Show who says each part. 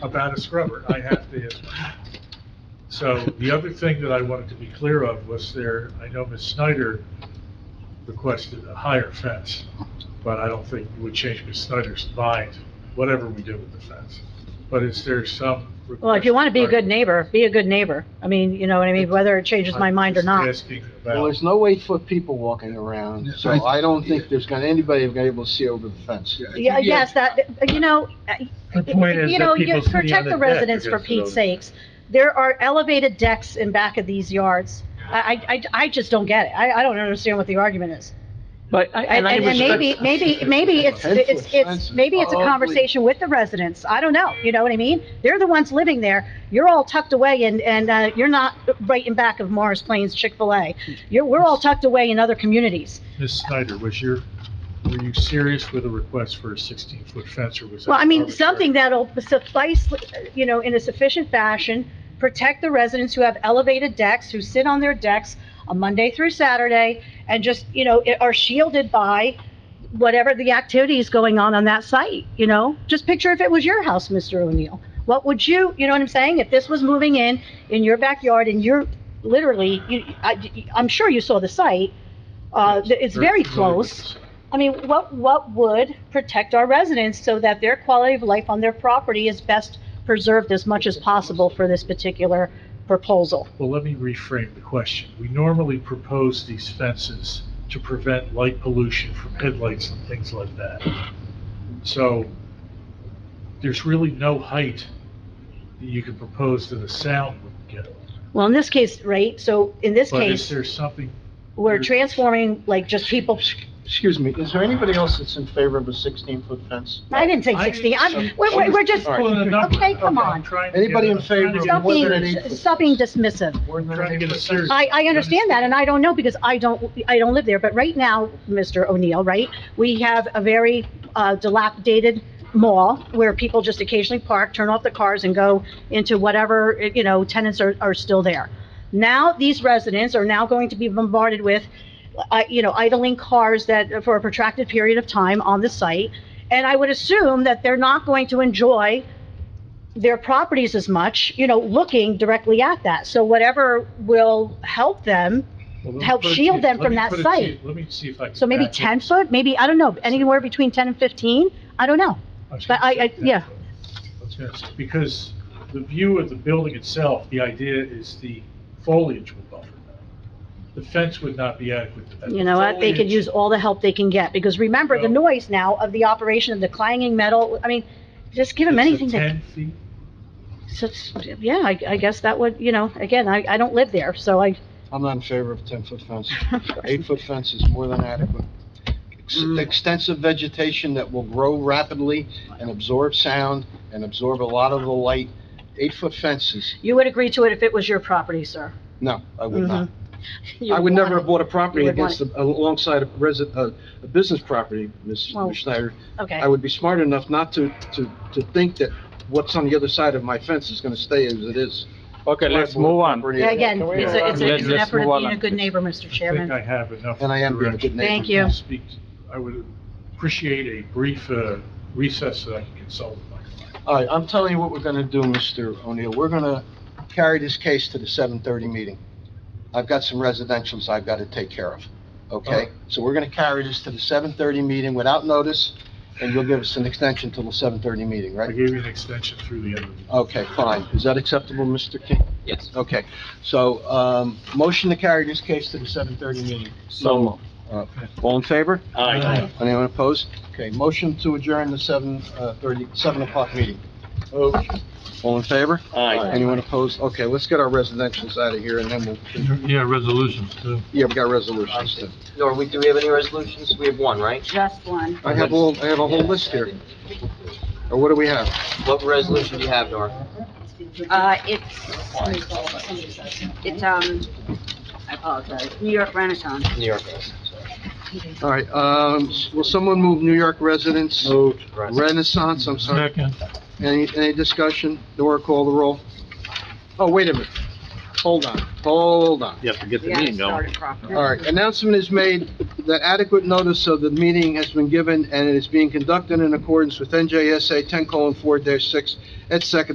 Speaker 1: about a scrubber. I have to answer. So the other thing that I wanted to be clear of was there, I know Ms. Snyder requested a higher fence, but I don't think it would change Ms. Snyder's mind, whatever we do with the fence. But is there some?
Speaker 2: Well, if you want to be a good
Speaker 1: request-
Speaker 2: neighbor, be a good neighbor. I mean, you know what I mean, whether it changes my mind or
Speaker 1: I'm
Speaker 2: not.
Speaker 1: just asking about-
Speaker 3: Well, there's no eight-foot people walking around, so I don't think there's gonna, anybody gonna be able to see over the fence.
Speaker 2: Yeah, yes, that, you know, uh,
Speaker 4: The point is
Speaker 2: you
Speaker 4: that
Speaker 2: know, you
Speaker 4: people sitting on
Speaker 2: protect
Speaker 4: the
Speaker 2: the
Speaker 4: deck
Speaker 2: residents for
Speaker 4: because of
Speaker 2: Pete's
Speaker 4: those-
Speaker 2: sakes. There are elevated decks in back of these yards. I, I- I, I just don't get it. I, I don't understand what the argument is.
Speaker 4: But, I-
Speaker 2: And,
Speaker 4: and I
Speaker 2: and and
Speaker 4: respect,
Speaker 2: maybe, maybe, maybe it's,
Speaker 3: Ten-foot
Speaker 2: it's, it's,
Speaker 3: fences.
Speaker 2: maybe it's a
Speaker 3: Ugly.
Speaker 2: conversation with the residents. I don't know, you know what I mean? They're the ones living there. You're all tucked away and, and, uh, you're not right in back of Morris Plains Chick-fil-A. You're, we're all tucked away in other communities.
Speaker 1: Ms. Snyder, was your, were you serious with a request for a 16-foot fence or was that?
Speaker 2: Well, I mean,
Speaker 1: arbitrary?
Speaker 2: something that'll suffice, you know, in a sufficient fashion, protect the residents who have elevated decks, who sit on their decks on Monday through Saturday, and just, you know, i- are shielded by whatever the activity is going on on that site, you know? Just picture if it was your house, Mr. O'Neill. What would you, you know what I'm saying? If this was moving in, in your backyard, and you're literally, you, I, I'm sure you saw the site, uh, it's very
Speaker 1: familiar with
Speaker 2: close.
Speaker 1: this.
Speaker 2: I mean, what, what would protect our residents so that their quality of life on their property is best preserved as much as possible for this particular proposal?
Speaker 1: Well, let me reframe the question. We normally propose these fences to prevent light pollution from headlights and things like that. So there's really no height that you can propose that a sound would get.
Speaker 2: Well, in this case, right, so in this
Speaker 1: But is
Speaker 2: case,
Speaker 1: there something,
Speaker 2: we're transforming, like, just people,
Speaker 3: Oh, Excuse me, is there anybody else that's in favor of a sixteen-foot fence?
Speaker 2: I didn't say
Speaker 1: I-
Speaker 2: 60, I'm, we're, we're- we're just,
Speaker 3: All right.
Speaker 1: pulling a number?
Speaker 2: Okay, come
Speaker 1: I'm
Speaker 2: on.
Speaker 1: trying to
Speaker 3: Anybody
Speaker 1: get-
Speaker 3: in
Speaker 1: I'm trying to
Speaker 3: favor
Speaker 1: get-
Speaker 2: stop
Speaker 3: of more than an
Speaker 2: being,
Speaker 3: eight foot
Speaker 2: stop being dismissive.
Speaker 3: More than
Speaker 1: Trying to
Speaker 3: an
Speaker 1: get a
Speaker 3: eight-foot
Speaker 1: serious-
Speaker 3: fence?
Speaker 2: I, I understand that, and I don't know, because I don't, I don't live there, but right now, Mr. O'Neill, right, we have a very uh, dilapidated mall where people just occasionally park, turn off the cars, and go into whatever, you know, tenants are, are still there. Now, these residents are now going to be bombarded with, uh, you know, idling cars that, for a protracted period of time on the site, and I would assume that they're not going to enjoy their properties as much, you know, looking directly at that. So whatever will help them,
Speaker 1: Well, let me
Speaker 2: help
Speaker 1: put it to
Speaker 2: shield
Speaker 1: you-
Speaker 2: them
Speaker 1: let
Speaker 2: from
Speaker 1: me
Speaker 2: that
Speaker 1: put it to
Speaker 2: site.
Speaker 1: you- Let me see if I can.
Speaker 2: so maybe
Speaker 1: back it.
Speaker 2: 10 foot, maybe, I don't know, anywhere between 10 and 15? I don't know.
Speaker 1: was gonna
Speaker 2: But I-
Speaker 1: say
Speaker 2: I-
Speaker 1: that,
Speaker 2: yeah.
Speaker 1: but I was gonna say, Because the view of the building itself, the idea is the foliage will buffer. The fence would not be adequate to that.
Speaker 2: You know what, they could
Speaker 1: Foliage-
Speaker 2: use all the help they can get, because remember the
Speaker 1: Well-
Speaker 2: noise now of the operation of the clanging metal, I mean, just give them
Speaker 1: it's a
Speaker 2: anything that,
Speaker 1: Ten feet,
Speaker 2: so it's- yeah, I, I guess that would, you know, again, I, I don't live there, so I,
Speaker 3: I'm not in favor of ten-foot fence. Eight-foot fence is more than adequate. Ex- Extensive vegetation that will grow rapidly and absorb sound and absorb a lot of the light. Eight-foot fences,
Speaker 2: you would agree to it if it was your property, sir.
Speaker 3: no, I would not.
Speaker 2: Mm-hmm. You
Speaker 3: I would never
Speaker 2: want
Speaker 3: have bought a property
Speaker 2: You would want
Speaker 3: against, a- alongside a resi a, a business property, Ms.
Speaker 2: Well-
Speaker 3: Schneider.
Speaker 2: it. Okay.
Speaker 3: I would be smart enough not to, to, to think that what's on the other side of my fence is gonna stay as it is.
Speaker 5: Okay, let's move on.
Speaker 3: Property-
Speaker 2: Yeah, Again, it's a, it's a- it's an
Speaker 5: Let's
Speaker 2: effort of
Speaker 5: move
Speaker 2: being a
Speaker 5: on.
Speaker 2: good neighbor, Mr.
Speaker 1: I think
Speaker 2: Chairman.
Speaker 1: I have enough.
Speaker 3: And I am being a
Speaker 1: direction
Speaker 3: good neighbor.
Speaker 2: Thank
Speaker 1: to
Speaker 2: you.
Speaker 1: speak to. I would appreciate a brief uh, recess so I can consult with my client.
Speaker 3: All right, I'm telling you what we're gonna do, Mr. O'Neill. We're gonna carry this case to the seven-thirty meeting. I've got some residentials I've gotta take care of, okay?
Speaker 1: Alright.
Speaker 3: So we're gonna carry this to the seven-thirty meeting without notice, and you'll give us an extension till the seven-thirty meeting,
Speaker 1: I
Speaker 3: right?
Speaker 1: gave you an extension through the end of the.
Speaker 3: Okay, fine. Is that acceptable, Mr. King?
Speaker 5: Yes.
Speaker 3: Okay, so, um, motion to carry this case to the seven-thirty meeting. Uh,
Speaker 5: So moved.
Speaker 3: All in favor?
Speaker 5: Aye.
Speaker 3: Anyone opposed? Okay, motion to adjourn the seven, uh, thirty, seven o'clock meeting. All in favor?
Speaker 5: Aye.
Speaker 3: Anyone opposed? Okay, let's get our residentials out of here and then we'll,
Speaker 4: yeah, resolutions too.
Speaker 3: yeah, we got resolutions then.
Speaker 6: No, are we, do we have any resolutions? We have one, right?
Speaker 2: Just one.
Speaker 3: I have all, I have a whole list here. Or what do we have?
Speaker 6: What resolution do you have, Nora?
Speaker 7: Uh, it's, it's, um, I apologize, New York Renaissance.
Speaker 6: New York.
Speaker 3: All right, um, will someone move New York residents?
Speaker 4: Moved.
Speaker 3: Renaissance, I'm sorry.
Speaker 4: Second.
Speaker 3: Any, any discussion? Nora, call the roll. Oh, wait a minute. Hold on, hold on.
Speaker 4: You have to get
Speaker 7: We haven't started properly.
Speaker 3: All right, announcement is made that adequate notice of the meeting has been given and it is being conducted in accordance with NJSA 10:4-6 at second